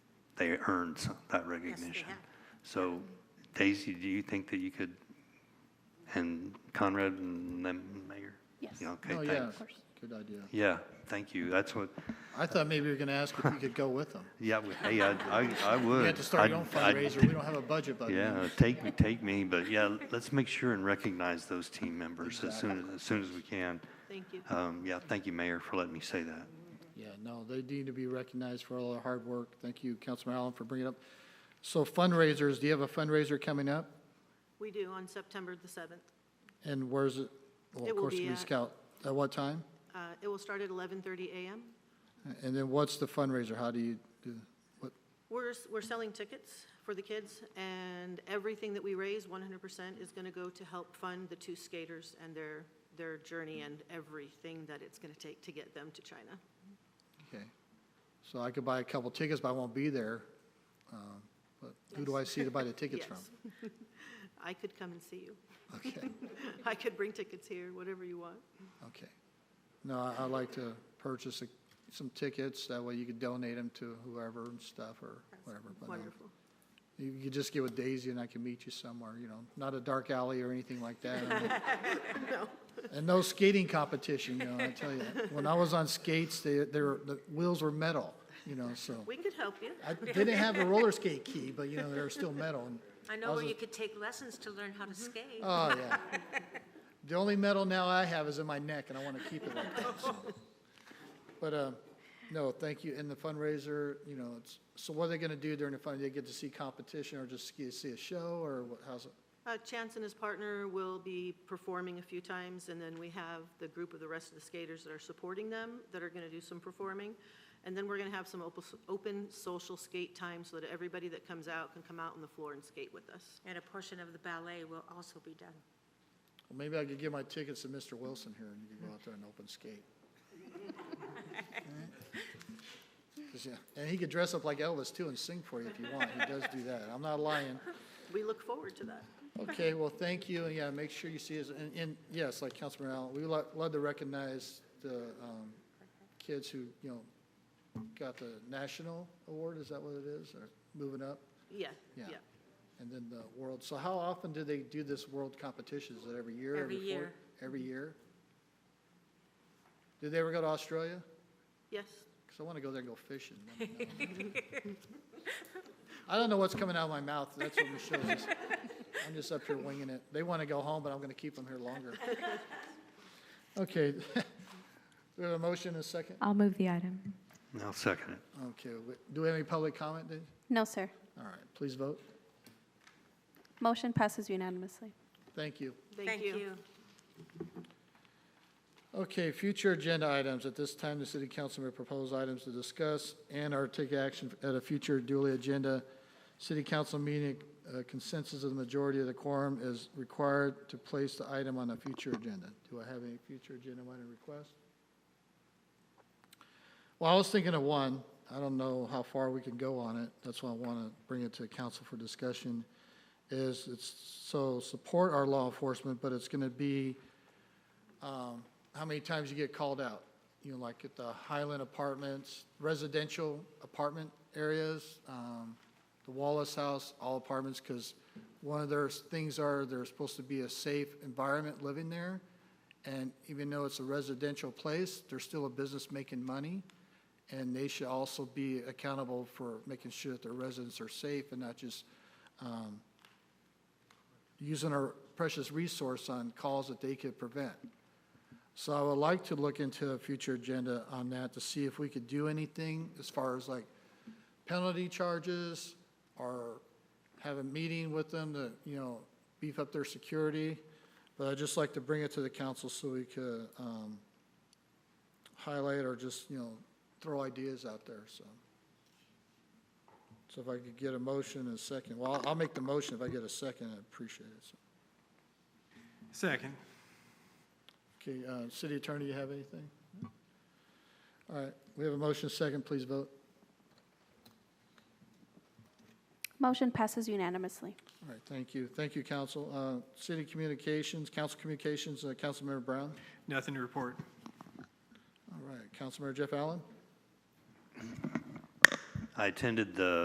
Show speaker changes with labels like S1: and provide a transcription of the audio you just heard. S1: they earned some- that recognition.
S2: have.
S1: So Daisy, do you think that you could, and Conrad and them, Mayor?
S3: Yes.
S1: Yeah, Okay,
S4: Oh, yeah,
S1: thanks.
S4: good idea.
S1: Yeah, thank you. That's what,
S4: I thought maybe you were going to ask if we could go with them.
S1: yeah, we- hey, I, I- I would.
S4: You have to start your own
S1: I'd- I'd-
S4: fundraiser, we don't have a budget, but
S1: Yeah, take me, take me, but yeah, let's make sure and recognize those team members as soon, as as soon as we can.
S2: Thank you.
S1: Um, yeah, thank you, Mayor, for letting me say that.
S4: Yeah, no, they need to be recognized for all their hard work. Thank you, Councilman Allen, for bringing it up. So fundraisers, do you have a fundraiser coming up?
S2: We do on September the 7th.
S4: And where's it? Well,
S2: It
S4: of
S2: will
S4: course,
S2: be
S4: it'll be
S2: at-
S4: Scout. At what time?
S2: Uh, It will start at 11:30 a.m.
S4: And then what's the fundraiser? How do you, do? what,
S2: We're, s- we're selling tickets for the kids, and everything that we raise, 100%, is going to go to help fund the two skaters and their, their journey and everything that it's going to take to get them to China.
S4: okay. So I could buy a couple tickets, but I won't be there. Um, But who do I see to buy the tickets from?
S2: Yes. I could come and see you.
S4: Okay,
S2: I could bring tickets here, whatever you want.
S4: okay. No, I- I'd like to purchase a- some tickets. That way you could donate them to whoever and stuff or whatever. but no.
S2: Wonderful.
S4: You could just get with Daisy and I can meet you somewhere, you know, not a dark alley or anything like that. I mean- And no skating competition, you know, I tell you. When I was on skates, they, they were, the wheels were metal, you know, so.
S2: We could help you.
S4: I didn't have a roller skate key, but you know, they were still metal. and-
S5: I know where you could take lessons to learn how to
S2: Mm-hmm.
S5: skate.
S4: Oh, yeah. The only metal now I have is in my neck, and I want to keep it like that. so. But, uh, no, thank you. And the fundraiser, you know, it's, so what are they going to do during the fund? They get to see competition or just see see a show or what, how's it?
S2: Uh, Chance and his partner will be performing a few times, and then we have the group of the rest of the skaters that are supporting them that are going to do some performing. And then we're going to have some open, open social skate time so that everybody that comes out can come out on the floor and skate with us.
S5: And a portion of the ballet will also be done.
S4: Well, maybe I could give my tickets to Mr. Wilson here, and you could go out there and open skate. 'Cause, yeah, And he could dress up like Elvis, too, and sing for you if you want. He does do that. I'm not lying.
S2: We look forward to that.
S4: Okay, well, thank you, and yeah, make sure you see us, and, and, yes, like Councilman Allen, we lo- love to recognize the, um, kids who, you know, got the national award, is that what it is, or moving up?
S2: Yeah,
S4: Yeah.
S2: yeah.
S4: And then the world, so how often do they do this world competition? Is it every year?
S5: Every
S4: four-
S5: year.
S4: Every year? Did they ever go to Australia?
S2: Yes,
S4: Because I want to go there and go fishing. Let me know. I don't know what's coming out of my mouth. That's what Michelle's just, I'm just up here winging it. They want to go home, but I'm going to keep them here longer. Okay. Do we have a motion and a second?
S3: I'll move the item.
S1: I'll second it.
S4: Okay. we- Do we have any public comment? Dave?
S3: No, sir.
S4: All right, please vote.
S3: Motion passes unanimously.
S4: Thank you.
S2: thank you.
S4: Okay, future agenda items. At this time, the city council may propose items to discuss and or take action at a future duly agenda. City council meeting uh, consensus of the majority of the quorum is required to place the item on a future agenda. Do I have any future agenda item requests? Well, I was thinking of one. I don't know how far we can go on it. That's why I want to bring it to council for discussion. Is it's, so support our law enforcement, but it's going to be um, how many times you get called out. You know, like at the Highland Apartments, residential apartment areas, um, the Wallace House, all apartments, because one of their things are they're supposed to be a safe environment living there. And even though it's a residential place, they're still a business making money. And they should also be accountable for making sure that their residents are safe and not just um, using our precious resource on calls that they could prevent. So I would like to look into a future agenda on that to see if we could do anything as far as like penalty charges or have a meeting with them to, you know, beef up their security. But I'd just like to bring it to the council so we could, um, highlight or just, you know, throw ideas out there, so. So if I could get a motion and a second, well, I'll- I'll make the motion if I get a second, I appreciate it. so.
S6: Second.
S4: Okay, uh, city attorney, you have anything? All right, we have a motion, second, please vote.
S3: Motion passes unanimously.
S4: All right, thank you, thank you, council. Uh, City communications, council communications, uh, Councilmember Brown.
S6: Nothing to report.
S4: All right, Councilmember Jeff Allen.
S1: I attended the